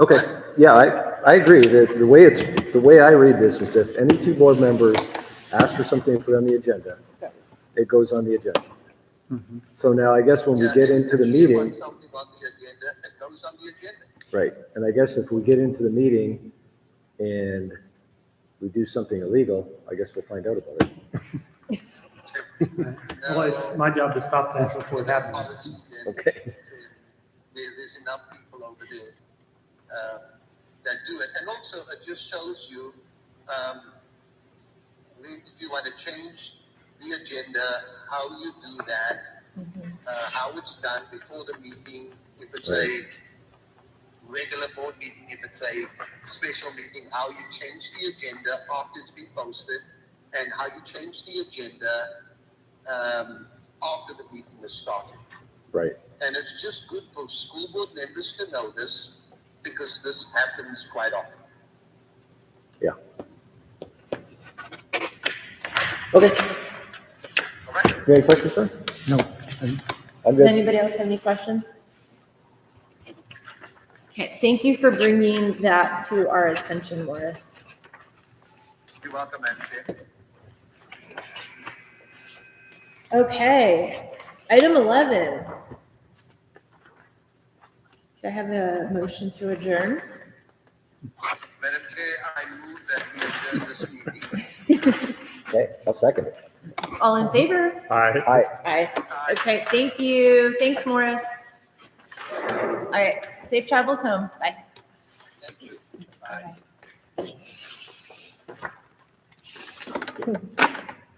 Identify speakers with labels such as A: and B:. A: Okay, yeah, I, I agree that the way it's, the way I read this is if any two board members ask for something put on the agenda, it goes on the agenda. So now I guess when we get into the
B: If you
A: meeting,
B: want something on the agenda, it comes on the agenda.
A: right, and I guess if we get into the meeting and we do something illegal, I guess we'll find out about it.
C: Well, it's my job to stop that before it
B: That
C: happens.
B: policy then,
A: Okay.
B: There- There's enough people over there uh, that do it. And also, it just shows you, um, if you want to change the agenda, how you do that, uh, how it's done before the meeting, if it's a regular board meeting, if it's a special meeting, how you change the agenda after it's been posted, and how you change the agenda um, after the meeting has started.
A: Right,
B: And it's just good for school board members to know this because this happens quite often.
A: yeah. Okay,
B: All right?
A: you have any questions, sir?
C: No.
A: I'm
D: Does
A: good.
D: anybody else have any questions? Okay, thank you for bringing that to our attention, Morris.
B: You're welcome, Madam Chair.
D: Okay, item 11. Do I have a motion to adjourn?
B: Madam Chair, uh, I move that we adjourn this meeting.
A: Okay, I'll second it.
D: All in favor?
C: All right.
A: Aye.
D: Aye. Okay, thank you. Thanks, Morris. All right, safe travels home. Bye.
B: Thank you. Bye.